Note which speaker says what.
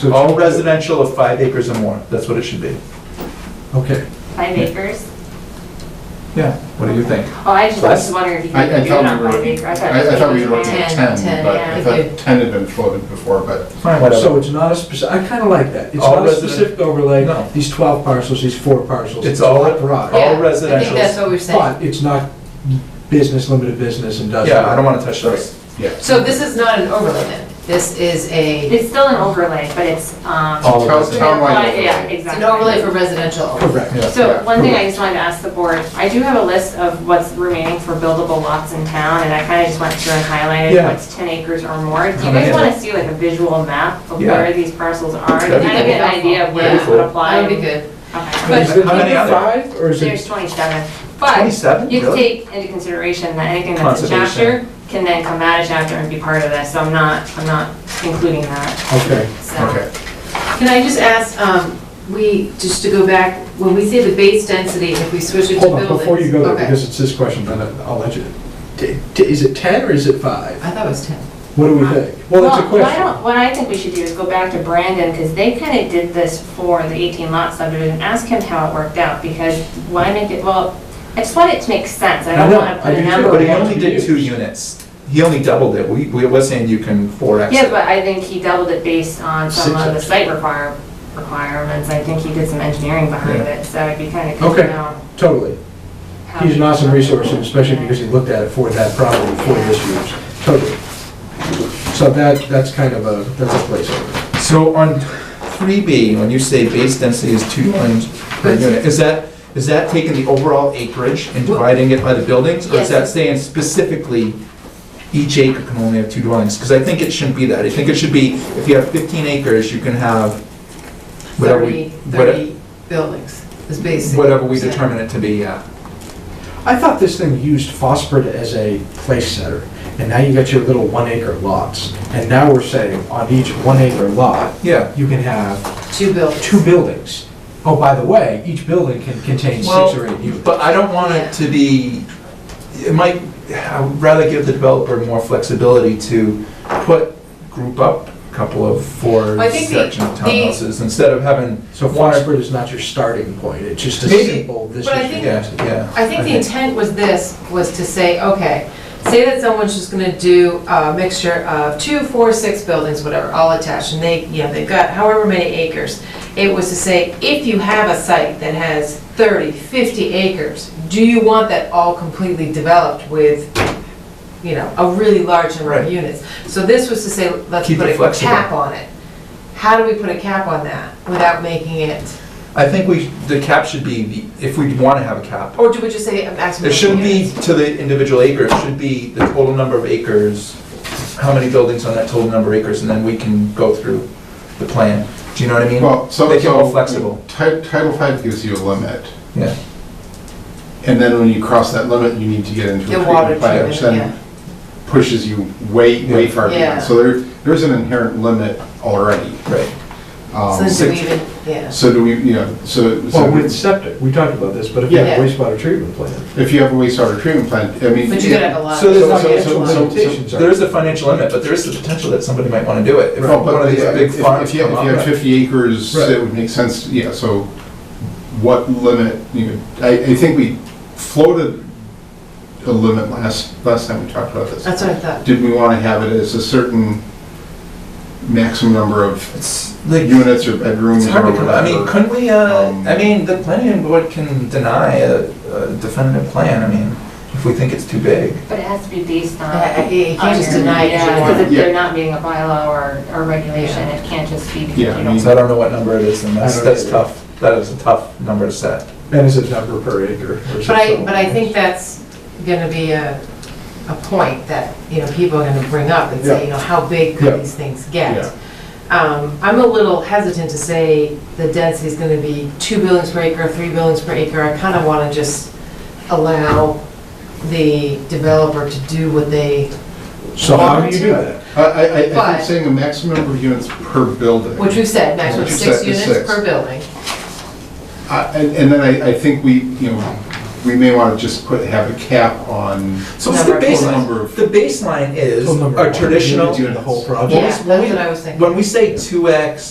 Speaker 1: So-
Speaker 2: All residential of five acres or more, that's what it should be.
Speaker 1: Okay,
Speaker 3: Five acres?
Speaker 2: Yeah, what do you think?
Speaker 3: Oh, I just I was wondering if you
Speaker 4: I,
Speaker 3: could
Speaker 4: I
Speaker 3: do it
Speaker 4: thought we
Speaker 3: on
Speaker 4: were,
Speaker 3: five acres.
Speaker 4: I, I thought we were looking at
Speaker 5: 10,
Speaker 4: ten,
Speaker 5: 10,
Speaker 4: but
Speaker 5: yeah.
Speaker 4: I thought ten had been floated before, but
Speaker 2: Fine,
Speaker 1: so
Speaker 2: whatever.
Speaker 1: it's not a specific, I kind of like that. It's
Speaker 2: All
Speaker 1: not a
Speaker 2: resident-
Speaker 1: specific overlay,
Speaker 2: No.
Speaker 1: these 12 parcels, these four parcels.
Speaker 2: It's all-
Speaker 1: a lot broad.
Speaker 2: all
Speaker 5: Yeah, I
Speaker 2: residential.
Speaker 5: think that's what we're saying.
Speaker 1: But it's not business, limited business, industrial.
Speaker 2: Yeah, I don't want to touch those.
Speaker 4: yeah.
Speaker 5: So this is not an overlay then? This is a,
Speaker 3: It's still an overlay, but it's, um.
Speaker 2: All
Speaker 4: Town-
Speaker 2: residential.
Speaker 4: Townwide
Speaker 3: Yeah,
Speaker 4: overlay.
Speaker 5: it's
Speaker 3: exactly.
Speaker 5: an overlay for residential. overlay.
Speaker 1: Correct.
Speaker 4: Yeah,
Speaker 3: So
Speaker 4: yeah.
Speaker 3: one thing I just wanted to ask the board, I do have a list of what's remaining for buildable lots in town, and I kind of just went through and highlighted
Speaker 2: Yeah.
Speaker 3: what's 10 acres or more. Do you
Speaker 2: Yeah.
Speaker 3: guys want to see like a visual map of
Speaker 2: Yeah.
Speaker 3: where these parcels are?
Speaker 2: That'd
Speaker 3: Kind
Speaker 2: be
Speaker 3: of get an idea of where this would
Speaker 2: That'd be
Speaker 3: apply?
Speaker 5: That would be good.
Speaker 3: Okay.
Speaker 5: But-
Speaker 1: Is it
Speaker 2: How many
Speaker 1: number
Speaker 2: are there?
Speaker 1: Five, or is
Speaker 3: There's
Speaker 1: it,
Speaker 3: 27, but
Speaker 2: Twenty-seven,
Speaker 3: you have to
Speaker 2: really?
Speaker 3: take into consideration that anything that's a chapter
Speaker 2: Conservation.
Speaker 3: can then come out of chapter and be part of this, so I'm not, I'm not including that,
Speaker 1: okay,
Speaker 3: so.
Speaker 4: Okay,
Speaker 5: Can I just ask, um, we, just to go back, when we say the base density, if we switch it to
Speaker 1: hold
Speaker 5: buildings?
Speaker 1: on, before you go there,
Speaker 5: okay.
Speaker 1: because it's this question, then I'll let you. T- t- Is it 10 or is it five?
Speaker 5: I thought it was 10.
Speaker 1: What do we think? Well, it's a
Speaker 3: Well, why
Speaker 1: question.
Speaker 3: don't- What I think we should do is go back to Brandon, because they kind of did this for the 18 lot subdivision, ask him how it worked out, because why make it, well, I just want it to make sense, I
Speaker 1: I
Speaker 3: don't
Speaker 1: know,
Speaker 3: want to
Speaker 1: I
Speaker 3: put a
Speaker 1: do too,
Speaker 3: number
Speaker 2: But he
Speaker 3: on it.
Speaker 2: only did two units. He only doubled it. We, we were saying you can four X.
Speaker 3: Yeah, but I think he doubled it based on some
Speaker 1: Six
Speaker 3: of the
Speaker 1: X.
Speaker 3: site require, requirements, I think he did some engineering behind
Speaker 2: Yeah.
Speaker 3: it, so it'd be kind of good to
Speaker 1: Okay.
Speaker 3: know.
Speaker 1: Totally.
Speaker 3: how
Speaker 1: He's an
Speaker 3: he-
Speaker 1: awesome resource, and especially because he looked at it for that problem, for this use, totally. So that, that's kind of a, that's a placeholder.
Speaker 2: So on three B, when you say base density is two lines per
Speaker 5: Yes.
Speaker 2: unit, is that, is that taking the overall acreage and dividing it by the buildings? Or is
Speaker 5: Yes.
Speaker 2: that saying specifically each acre can only have two dwellings? Because I think it shouldn't be that. I think it should be, if you have fifteen acres, you can have whatever we,
Speaker 5: 30,
Speaker 2: whate-
Speaker 5: 30 buildings is basic.
Speaker 2: whatever we determine it to be, yeah.
Speaker 1: I thought this thing used phosphid as a place setter, and now you got your little one acre lots, and now we're saying on each one acre lot,
Speaker 2: Yeah.
Speaker 1: you can have
Speaker 5: Two buildings.
Speaker 1: two buildings. Oh, by the way, each building can contain six
Speaker 2: Well,
Speaker 1: or eight units.
Speaker 2: But I don't want it to be, it might, I would rather give the developer more flexibility to put, group up a couple of four
Speaker 5: Well, I think the-
Speaker 2: section of
Speaker 5: the-
Speaker 2: townhouses instead of having.
Speaker 1: So
Speaker 2: one-
Speaker 1: phosphid is not your starting point, it's just a
Speaker 2: Maybe,
Speaker 1: simple, this is.
Speaker 5: but I
Speaker 1: your
Speaker 5: think-
Speaker 2: Yeah,
Speaker 1: density.
Speaker 2: yeah.
Speaker 5: I think the intent was this, was to say, okay, say that someone's just gonna do a mixture of two, four, six buildings, whatever, all attached, and they, you know, they've got however many acres. It was to say, if you have a site that has 30, 50 acres, do you want that all completely developed with, you know, a really large number
Speaker 2: Right.
Speaker 5: of units? So this was to say, let's
Speaker 2: Keep
Speaker 5: put
Speaker 2: it
Speaker 5: a
Speaker 2: flexible.
Speaker 5: cap on it. How do we put a cap on that without making it,
Speaker 2: I think we, the cap should be, the if we want to have a cap,
Speaker 5: or do we just say a maximum
Speaker 2: it
Speaker 5: of
Speaker 2: shouldn't be
Speaker 5: units?
Speaker 2: to the individual acre, it should be the total number of acres, how many buildings on that total number of acres, and then we can go through the plan. Do you know what I mean?
Speaker 4: well, so.
Speaker 2: Make it more
Speaker 4: so
Speaker 2: flexible.
Speaker 4: Ti- Title V gives you a limit,
Speaker 2: Yeah,
Speaker 4: and then when you cross that limit, you need to get into a
Speaker 5: The water
Speaker 4: treatment plan, which
Speaker 5: treatment, yeah.
Speaker 4: then pushes you way, way
Speaker 2: Yeah.
Speaker 4: far
Speaker 5: Yeah.
Speaker 4: beyond. So there, there's an inherent limit already.
Speaker 2: right.
Speaker 4: Um,
Speaker 5: So then do we
Speaker 2: six-
Speaker 5: even, yeah.
Speaker 4: So do we, you know, so. so
Speaker 1: Well, with septic, we talked about this, but if you have
Speaker 5: Yeah.
Speaker 1: a wastewater treatment plant,
Speaker 4: If you have a wastewater treatment plant, I mean.
Speaker 5: But you gotta have a lot.
Speaker 2: So
Speaker 5: of
Speaker 2: there's
Speaker 4: So-
Speaker 2: not
Speaker 4: so-
Speaker 2: gonna
Speaker 4: so-
Speaker 1: actual
Speaker 4: so-
Speaker 1: limitations
Speaker 2: There is a financial limit, but there is the potential that somebody might want to do it. If
Speaker 4: No,
Speaker 2: one
Speaker 4: but
Speaker 2: of these
Speaker 4: if
Speaker 2: big
Speaker 4: if-
Speaker 2: farms
Speaker 4: if you,
Speaker 2: come
Speaker 4: if you
Speaker 2: up-
Speaker 4: had fifty acres,
Speaker 2: Right.
Speaker 4: it would make sense, yeah, so what limit, you know, I, I think we floated a limit last, last time we talked about this.
Speaker 5: That's what I thought.
Speaker 4: Did we want to have it as a certain maximum number of
Speaker 2: It's like, it's
Speaker 4: units or bedrooms or
Speaker 2: hard to, come- I mean,
Speaker 4: whatever?
Speaker 2: couldn't we, uh,
Speaker 4: Um,
Speaker 2: I mean, the planning board can deny a a definitive plan, I mean, if we think it's too big.
Speaker 3: But it has to be based on.
Speaker 5: Yeah, yeah, you can't just
Speaker 3: on your-
Speaker 5: deny it.
Speaker 3: Yeah, because if
Speaker 4: Yeah.
Speaker 3: they're not meeting a bylaw or, or regulation, it can't just be. because
Speaker 4: Yeah,
Speaker 3: you
Speaker 4: I
Speaker 3: don't-
Speaker 4: mean-
Speaker 2: So I don't know what number it is, and that's,
Speaker 1: I don't
Speaker 2: that's
Speaker 1: either.
Speaker 2: tough, that is a tough number to set.
Speaker 1: and is it number per acre? or is it
Speaker 5: But I,
Speaker 1: total?
Speaker 5: but I think that's gonna be a, a point that, you know, people are gonna bring up and say, you know, how big
Speaker 1: Yeah.
Speaker 5: could these things
Speaker 4: Yeah.
Speaker 5: get? Um, I'm a little hesitant to say the density is gonna be two buildings per acre, three buildings per acre. I kinda wanna just allow the developer to do what they,
Speaker 1: So how do you do that?
Speaker 4: I, I, I
Speaker 5: But-
Speaker 4: think saying a maximum number of units per building.
Speaker 5: which we've said, maximum
Speaker 4: Which you
Speaker 5: six
Speaker 4: said is
Speaker 5: units
Speaker 4: six.
Speaker 5: per building.
Speaker 4: I- And and then I, I think we, you know, we may want to just put, have a cap on.
Speaker 2: So what's the
Speaker 5: Number.
Speaker 4: Number
Speaker 2: baseline?
Speaker 4: of-
Speaker 2: The baseline is
Speaker 1: Total number of
Speaker 2: our
Speaker 1: units,
Speaker 2: traditional,
Speaker 1: The whole project?
Speaker 5: Yeah, that's what I was thinking.
Speaker 2: when we say two X,